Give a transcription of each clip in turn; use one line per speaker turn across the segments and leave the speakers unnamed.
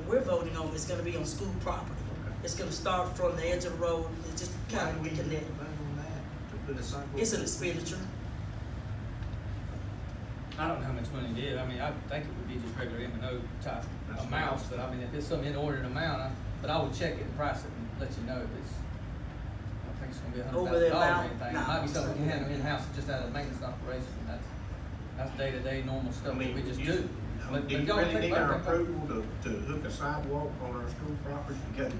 voting on is gonna be on school property. It's gonna start from the edge of the road, and just
Why
kind
do we
of
need
connect.
to vote on that, to put a sidewalk?
It's an expenditure.
I don't know how much money it is, I mean, I think it would be just regular M and O type
That's
amounts,
right.
but I mean, if it's some inordinate amount, I, but I would check it and price it and let you know if it's, I don't think it's gonna be a hundred
Over the
thousand dollars or
amount?
anything,
No.
it might be something we can handle in-house, just out of maintenance operation, that's, that's day-to-day normal
I
stuff that
mean,
we just
you-
do. But-
Do
but
you
y'all
really
take-
need our
okay, okay.
approval to, to hook a sidewalk on our school property, to go to,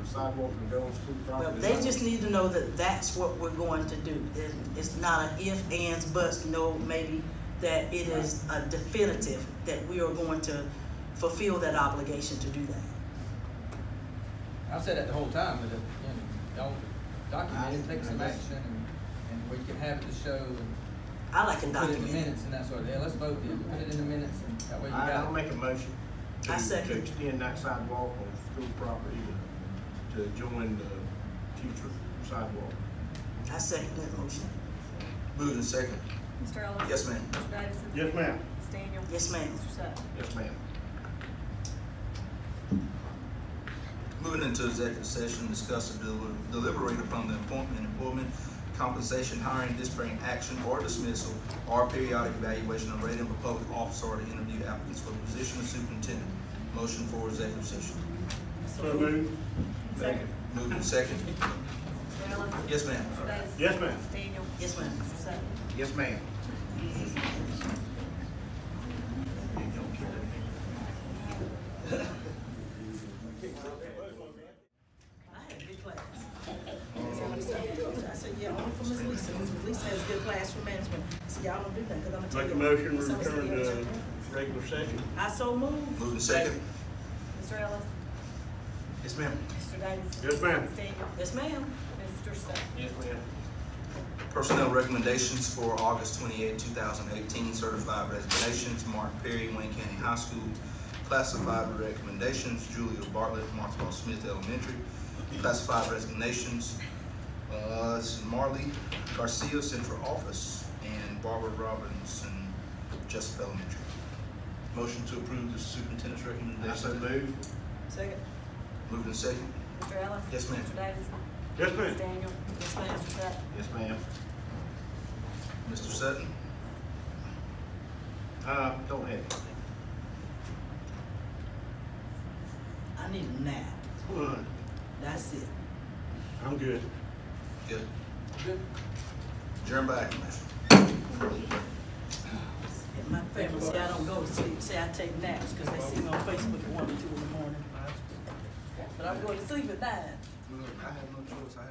for sidewalk to go on school
Well,
property?
they just need to know that that's what we're going to do. It- It's not an if, ands, buts, no, maybe, that it is a definitive that we are going to fulfill that obligation to do that.
I've said that the whole time, but, uh, you know, y'all document it,
I-
take some
I guess.
action, and, and we can have it to show, and
I like a
put it in the
document.
minutes and that sort of, yeah, let's vote, yeah, put it in the minutes, and that way you
I, I'll
got it.
make a motion to,
I
to
second.
extend that sidewalk on school property to, to join the future sidewalk.
I second that motion.
Moving second.
Mr. Ellis?
Yes, ma'am.
Mr. Davidson?
Yes, ma'am.
Ms. Daniel?
Yes, ma'am.
Mr. Sutton?
Yes, ma'am.
Moving into executive session, discuss and deli- deliberate upon the appointment, employment, compensation, hiring, disparate action or dismissal, or periodic evaluation of rating of a public officer or to interview applicants for the position of superintendent. Motion for executive session.
So moved. Second.
Moving second.
Mr. Ellis?
Yes, ma'am.
Mr. Davidson?
Yes, ma'am.
Ms. Daniel?
Yes, ma'am.
Mr. Sutton?
Yes, ma'am.
I had a good class. I said, yeah, only for Miss Lisa, Miss Lisa has good classroom management. So y'all don't do that, because I'm gonna tell you.
Make a motion, we
Some city
return to
official.
regular session.
I so moved.
Moving second.
Mr. Ellis?
Yes, ma'am.
Mr. Davidson?
Yes, ma'am.
Ms. Daniel?
Yes, ma'am.
Mr. Sutton?
Yes, ma'am.
Personnel recommendations for August 28, 2018, certified resignations, Mark Perry, Wayne County High School. Classified recommendations, Julia Bartlett, Martha Smith Elementary. Classified resignations, uh, this is Marley Garcia, Central Office, and Barbara Robinson, Jessup Elementary. Motion to approve the superintendent's
I so
recommendation.
move.
Second.
Moving to second.
Mr. Ellis?
Yes, ma'am.
Mr. Davidson?
Yes, ma'am.
Ms. Daniel? Yes, ma'am. Mr. Sutton?
Yes, ma'am.
Mr. Sutton.
Uh, don't have it.
I need a nap.
All right,
That's it.
I'm good.
Good.
Good.
Adjourn by acclamation.
And my family say I don't go to sleep, say I take naps, because they see me on Facebook at one or two in the morning. But I'm going to sleep at nine.
Look, I have no choice. I